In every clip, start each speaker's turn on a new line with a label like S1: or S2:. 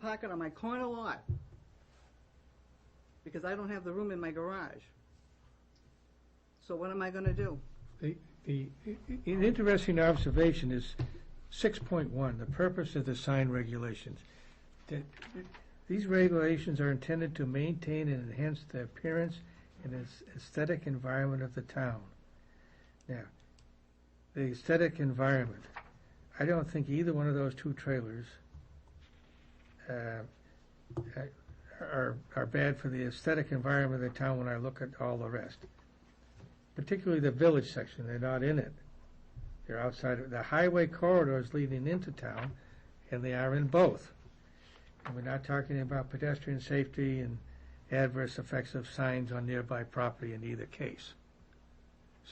S1: park it on my corner lot. Because I don't have the room in my garage. So what am I gonna do?
S2: The, the, an interesting observation is six point one, the purpose of the sign regulations. That These regulations are intended to maintain and enhance the appearance and its aesthetic environment of the town. Now, the aesthetic environment, I don't think either one of those two trailers uh, are, are bad for the aesthetic environment of the town when I look at all the rest particularly the village section, they're not in it. They're outside, of the highway corridors leading into town, and they are in both. And we're not talking about pedestrian safety and adverse effects of signs on nearby property in either case.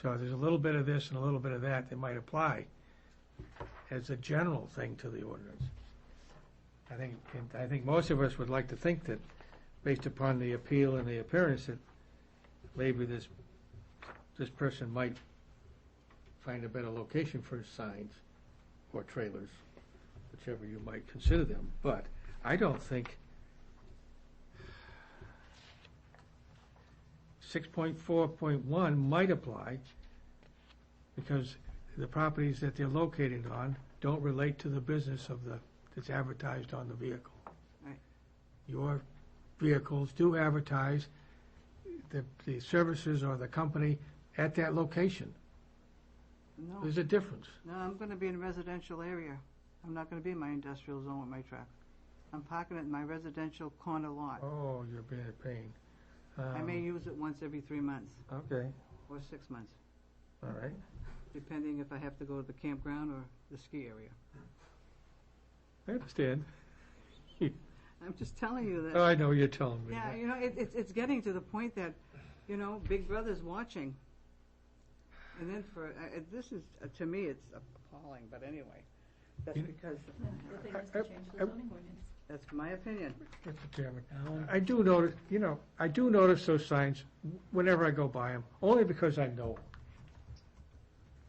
S2: So there's a little bit of this and a little bit of that that might apply as a general thing to the ordinance. I think, and I think most of us would like to think that, based upon the appeal and the appearance, that maybe this this person might find a better location for his signs or trailers, whichever you might consider them, but I don't think six point four point one might apply because the properties that they're located on don't relate to the business of the, that's advertised on the vehicle.
S1: Right.
S2: Your vehicles do advertise the, the services or the company at that location.
S1: No,
S2: There's a difference.
S1: no, I'm gonna be in a residential area. I'm not gonna be in my industrial zone with my truck. I'm parking it in my residential corner lot.
S2: Oh, you're being a pain.
S1: I may
S2: Um,
S1: use it once every three months,
S2: Okay,
S1: or six months,
S2: all right.
S1: depending if I have to go to the campground or the ski area.
S2: I understand.
S1: I'm just telling you that.
S2: Oh, I know what you're telling me.
S1: Yeah, you know, it, it's, it's getting to the point that, you know, Big Brother's watching. And then for, uh, uh, this is, uh, to me, it's appalling, but anyway, that's
S2: You-
S1: because,
S3: No, The thing is to change the zoning ordinance.
S1: that's my opinion.
S2: Mr. Chairman, I do notice, you know, I do notice those signs whenever I go by them, only because I know 'em.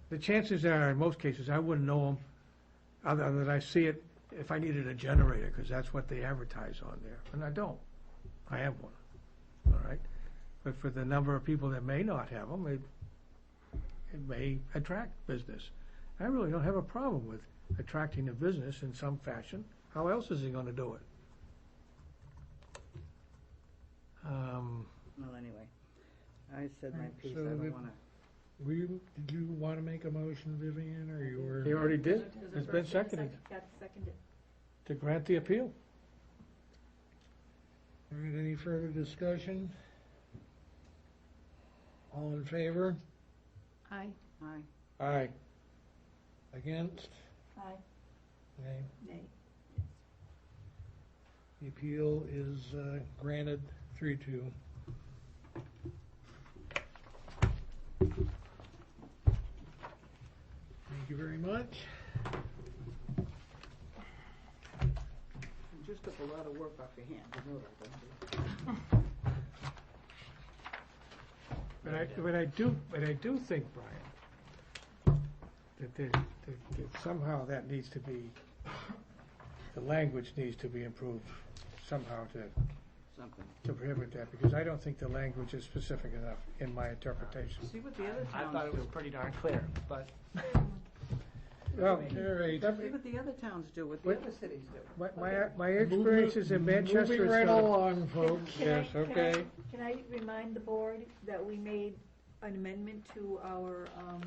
S2: The chances are, in most cases, I wouldn't know them, other than I see it if I needed a generator, because that's what they advertise on there, and I don't. I have one, all right? But for the number of people that may not have them, it, it may attract business. I really don't have a problem with attracting a business in some fashion. How else is he gonna do it? Um,
S1: Well, anyway, I said my
S4: Right,
S1: piece, I
S4: so
S1: don't
S4: the-
S1: wanna,
S4: Were you, did you want to make a motion, Vivian, or you
S2: He
S4: were?
S2: already did,
S3: There's a
S2: it's been
S3: first and a
S2: seconded,
S3: sec- Got seconded.
S2: to grant the appeal.
S4: All right, any further discussion? All in favor?
S3: Aye.
S1: aye,
S2: Aye.
S4: Against?
S3: Aye.
S4: Nay.
S3: Nay.
S4: The appeal is uh, granted three two. Thank you very much.
S1: you just took a lot of work off your hands, you know that, don't you?
S2: But I, but I do, but I do think, Brian, that, there- that, that somehow that needs to be, the language needs to be improved somehow to,
S1: something.
S2: to prohibit that, because I don't think the language is specific enough in my interpretation.
S1: See what the other
S5: I thought
S1: towns
S5: it was
S1: do,
S5: pretty darn clear, but
S2: Well,
S4: All right.
S1: see what the other towns do, what the
S2: Wait.
S1: other cities do.
S2: my, my, my experiences in Manchester
S4: Moving
S2: is
S4: right
S2: sort of-
S4: along, folks.
S3: Can I-
S2: Oh, Yes,
S3: can I-
S2: okay.
S3: Can I remind the board that we made an amendment to our um,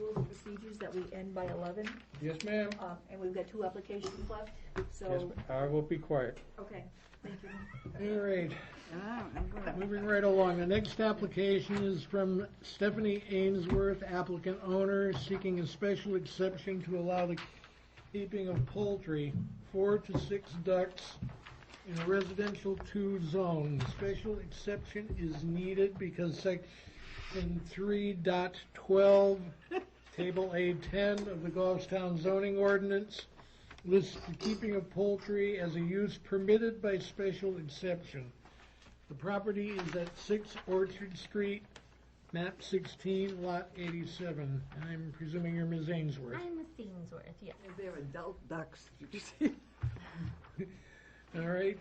S3: rules and procedures that we end by 11?
S4: Yes, ma'am.
S3: uh, And we've got two applications left,
S2: Yes,
S3: so,
S2: I will be quiet.
S3: okay, thank you.
S4: All right.
S1: And I, I'm gonna,
S4: Moving right along, the next application is from Stephanie Ainsworth, applicant owner, seeking a special exception to allow the keeping of poultry, four to six ducks in a residential two zone. Special exception is needed because section three dot twelve, table A ten of the Goffstown zoning ordinance lists the keeping of poultry as a use permitted by special exception. The property is at six Orchard Street, map sixteen, lot eighty-seven. I'm presuming you're Ms. Ainsworth.
S6: I'm Miss Ainsworth, yes.
S1: they're adult ducks, you see?
S4: All right,